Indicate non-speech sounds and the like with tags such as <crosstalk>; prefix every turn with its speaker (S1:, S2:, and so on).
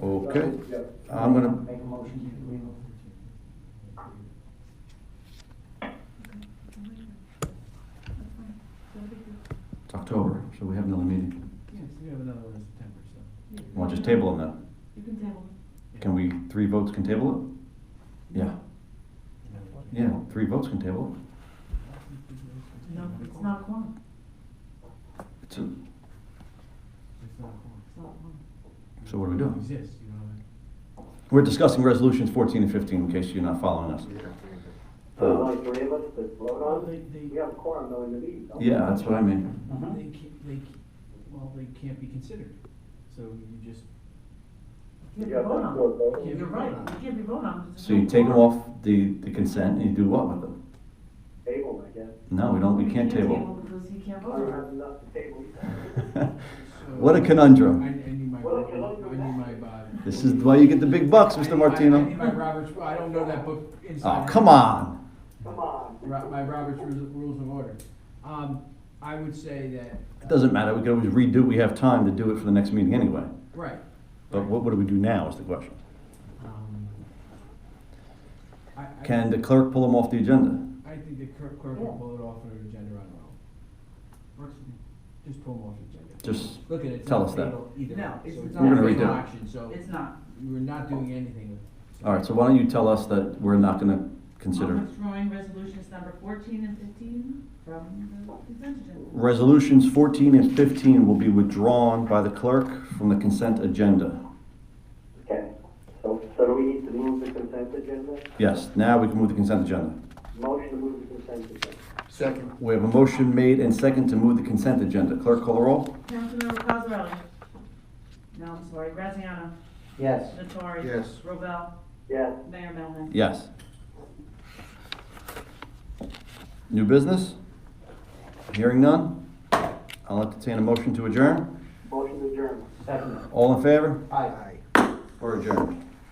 S1: Okay,
S2: Yeah.
S1: I'm gonna,
S3: Make a motion to remove.
S1: it's October, so we have another meeting.
S4: Yes, we have another one in September, so.
S1: Want to just table them now?
S5: You can table them.
S1: Can we, three votes can table it? Yeah, yeah, three votes can table
S5: No, it's not a quorum.
S1: it. It's a,
S4: It's not a quorum.
S5: It's not a quorum.
S1: So what do we do?
S4: It exists, you know, like-
S1: we're discussing resolutions fourteen and fifteen, in case you're not following us.
S2: So only three of us to vote
S4: Well,
S2: on
S4: they,
S2: it?
S4: they,
S2: We have a quorum though in the meeting. don't we?
S1: Yeah, that's what I mean.
S4: they can't, they, ca- well, they can't be considered, so you just.
S5: You
S2: You have
S5: can't
S2: to
S5: be voted on.
S2: vote, don't we?
S5: You're right, you can't be voted on. 'cause it's
S1: So
S5: not
S1: you
S5: a
S1: take them
S5: quorum.
S1: off the, the consent and you do what with them?
S2: Table, I guess.
S1: No, we don't, we can't table.
S5: Because you
S3: Oh.
S5: can't
S2: I don't
S5: vote on.
S2: have enough to table.
S4: so-
S1: What a
S4: I, I
S1: conundrum.
S4: need my,
S2: Well, if
S4: Robert-
S2: you
S4: I
S2: look
S4: need my, uh.
S1: <laughs> This is why you get the big bucks,
S4: I need
S1: Mr.
S4: my- I need my
S5: <laughs>
S1: Martino.
S4: Robert's, I don't know that book inside.
S1: Oh,
S4: out.
S1: come on.
S2: Come on.
S4: Ro- My Robert's Rules Rules of Order. Um, I would say that,
S1: It doesn't matter, we can always redo, we have time to do it for the next meeting anyway.
S4: right,
S1: But what, what do we do now is the question.
S4: um. I, I.
S1: Can the clerk pull them off the agenda?
S4: I think the clerk, clerk will pull it off of the agenda on her own.
S3: Works for me.
S4: Just pull them off the agenda.
S1: Just,
S4: Look at it, it's
S1: Tell
S4: not
S1: us that.
S4: fatal either.
S3: No, it's-
S4: So
S3: it's
S4: it's
S3: not
S4: not a
S1: We're gonna
S4: fatal
S1: redo it.
S4: action, so
S3: It's not.
S4: we're not doing anything with.
S1: all right, so why don't you tell us that we're not gonna
S5: I'm
S1: consider
S5: withdrawing resolutions number fourteen and fifteen from the consent agenda.
S1: Resolutions 14 and 15 will be withdrawn by the clerk from the consent agenda.
S2: Okay, so, so do we need to move the consent agenda?
S1: Yes, now we can move the consent agenda.
S2: Motion to move the consent agenda.
S6: Second.
S1: We have a motion made and second to move the consent agenda. Clerk, call the roll.
S5: Councilmember Cosarelli? No, I'm sorry, Graziano?
S3: Yes.
S5: Natori?
S6: Yes.
S5: Robel?
S2: Yes,
S5: Mayor Melham?
S1: Yes. New business? Hearing none? I'll entertain a motion to adjourn.
S2: motion to adjourn.
S3: Second.
S1: All in favor?
S3: Aye.
S1: Or adjourned?